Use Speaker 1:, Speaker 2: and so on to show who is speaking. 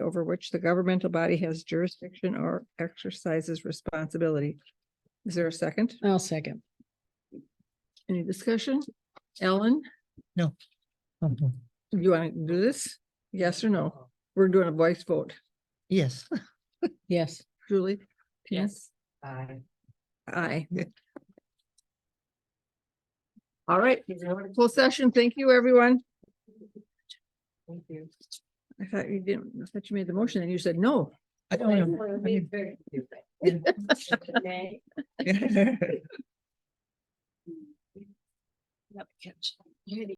Speaker 1: over which the governmental body has jurisdiction or exercises responsibility. Is there a second?
Speaker 2: I'll second.
Speaker 1: Any discussion? Ellen, do you want to do this? Yes or no? We're doing a voice vote.
Speaker 3: Yes.
Speaker 2: Yes.
Speaker 1: Julie?
Speaker 2: Yes.
Speaker 4: Aye.
Speaker 1: Aye.
Speaker 4: All right.
Speaker 1: Full session. Thank you, everyone.
Speaker 4: Thank you.
Speaker 1: I thought you didn't, I thought you made the motion and you said no.
Speaker 3: I don't know.